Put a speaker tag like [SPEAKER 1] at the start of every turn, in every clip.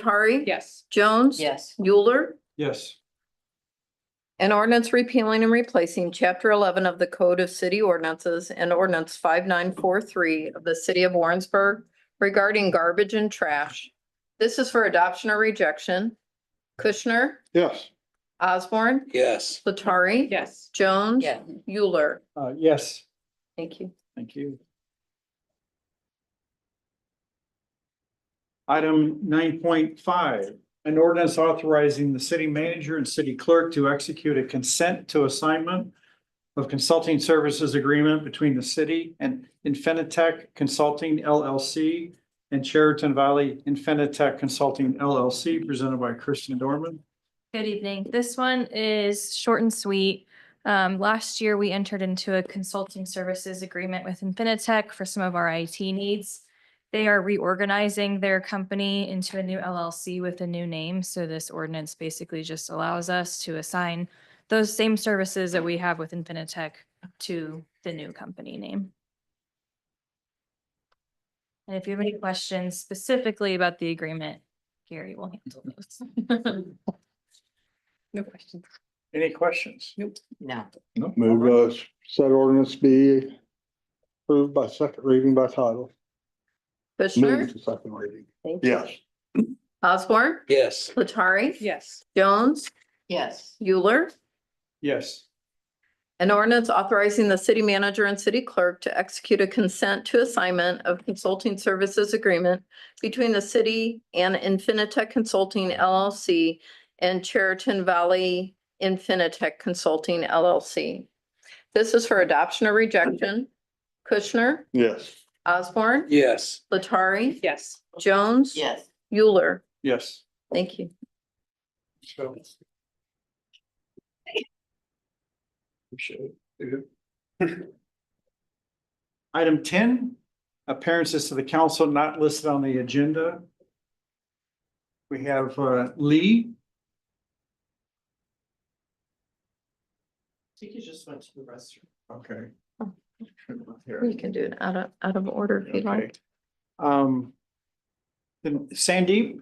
[SPEAKER 1] Latari?
[SPEAKER 2] Yes.
[SPEAKER 1] Jones?
[SPEAKER 3] Yes.
[SPEAKER 1] Euler?
[SPEAKER 4] Yes.
[SPEAKER 1] An ordinance repealing and replacing chapter eleven of the Code of City Ordinances and ordinance five nine four three of the city of Warrensburg regarding garbage and trash. This is for adoption or rejection. Kushner,
[SPEAKER 4] Yes.
[SPEAKER 1] Osborne,
[SPEAKER 5] yes,
[SPEAKER 1] Latari.
[SPEAKER 2] Yes.
[SPEAKER 1] Jones.
[SPEAKER 3] Yeah.
[SPEAKER 1] Euler.
[SPEAKER 4] Uh, yes,
[SPEAKER 1] Thank you.
[SPEAKER 4] thank you. Item nine point five, an ordinance authorizing the city manager and city clerk to execute a consent to assignment of consulting services agreement between the city and Infinitec Consulting LLC and Sheraton Valley Infinitec Consulting LLC presented by Kristen Dorman.
[SPEAKER 6] Good evening. This one is short and sweet. Um, last year, we entered into a consulting services agreement with Infinitec for some of our IT needs. They are reorganizing their company into a new LLC with a new name, so this ordinance basically just allows us to assign those same services that we have with Infinitec to the new company name. And if you have any questions specifically about the agreement, Gary will handle those.
[SPEAKER 2] No questions.
[SPEAKER 4] Any questions?
[SPEAKER 3] No.
[SPEAKER 4] No.
[SPEAKER 7] Move uh said ordinance be approved by second reading by title. Move
[SPEAKER 1] Kushner,
[SPEAKER 7] to second reading.
[SPEAKER 1] Thank
[SPEAKER 7] Yes,
[SPEAKER 1] Osborne,
[SPEAKER 5] yes,
[SPEAKER 1] Latari.
[SPEAKER 2] Yes.
[SPEAKER 1] Jones,
[SPEAKER 3] Yes.
[SPEAKER 1] Euler.
[SPEAKER 4] Yes.
[SPEAKER 1] An ordinance authorizing the city manager and city clerk to execute a consent to assignment of consulting services agreement between the city and Infinitec Consulting LLC and Cheriton Valley Infinitec Consulting LLC. This is for adoption or rejection. Kushner,
[SPEAKER 7] yes,
[SPEAKER 1] Osborne,
[SPEAKER 5] yes,
[SPEAKER 1] Latari,
[SPEAKER 2] Yes.
[SPEAKER 1] Jones.
[SPEAKER 3] Yes.
[SPEAKER 1] Euler.
[SPEAKER 4] Yes.
[SPEAKER 1] Thank you.
[SPEAKER 4] Item ten, appearances to the council not listed on the agenda. We have uh, Lee. I think he just went to the restroom. Okay.
[SPEAKER 1] You can do it out of, out of order if you'd
[SPEAKER 4] Okay.
[SPEAKER 1] like.
[SPEAKER 4] Um. Then Sandeep,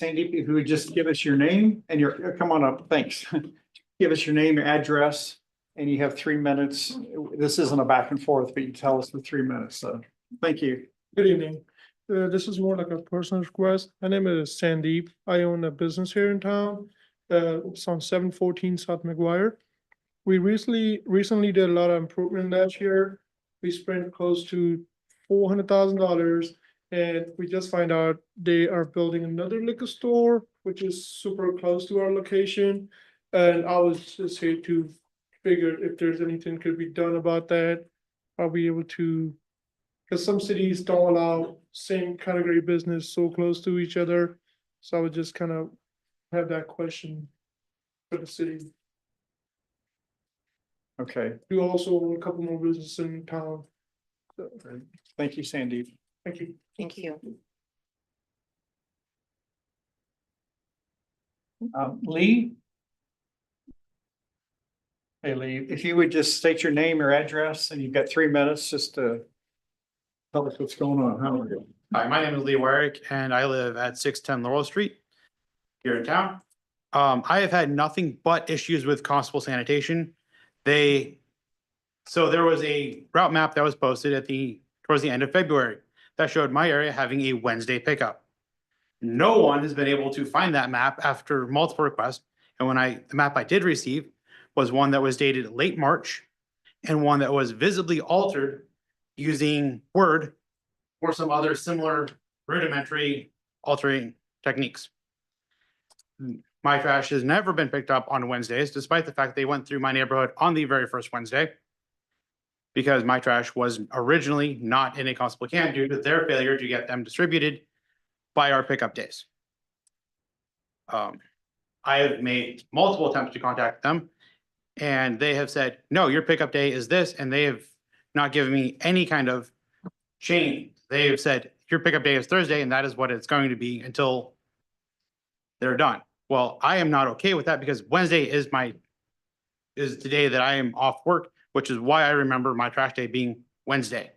[SPEAKER 4] Sandeep, if you would just give us your name and your, uh, come on up, thanks. Give us your name, your address, and you have three minutes. This isn't a back and forth, but you tell us for three minutes, so thank you.
[SPEAKER 8] Good evening. Uh, this is more like a personal request. My name is Sandeep. I own a business here in town. Uh, it's on seven fourteen South McGuire. We recently, recently did a lot of improvement last year. We spent close to four hundred thousand dollars. And we just find out they are building another liquor store, which is super close to our location. And I was just here to figure if there's anything could be done about that. Are we able to because some cities don't allow same category business so close to each other. So I would just kind of have that question for the city.
[SPEAKER 4] Okay,
[SPEAKER 8] We also own a couple more businesses in town. So,
[SPEAKER 4] thank you, Sandeep.
[SPEAKER 8] Thank you.
[SPEAKER 3] Thank you.
[SPEAKER 4] Um, Lee? Hey, Lee, if you would just state your name, your address, and you've got three minutes just to tell us what's going on. How are you?
[SPEAKER 9] Hi, my name is Lee Wyrick and I live at six ten Laurel Street here in town. Um, I have had nothing but issues with constable sanitation. They, so there was a route map that was posted at the, towards the end of February that showed my area having a Wednesday pickup. No one has been able to find that map after multiple requests. And when I, the map I did receive was one that was dated late March and one that was visibly altered using Word or some other similar rudimentary altering techniques. My trash has never been picked up on Wednesdays, despite the fact they went through my neighborhood on the very first Wednesday. Because my trash was originally not in a constable can due to their failure to get them distributed by our pickup days. Um, I have made multiple attempts to contact them. And they have said, no, your pickup day is this, and they have not given me any kind of Shane, they have said, your pickup day is Thursday and that is what it's going to be until they're done. Well, I am not okay with that because Wednesday is my, is the day that I am off work, which is why I remember my trash day being Wednesday.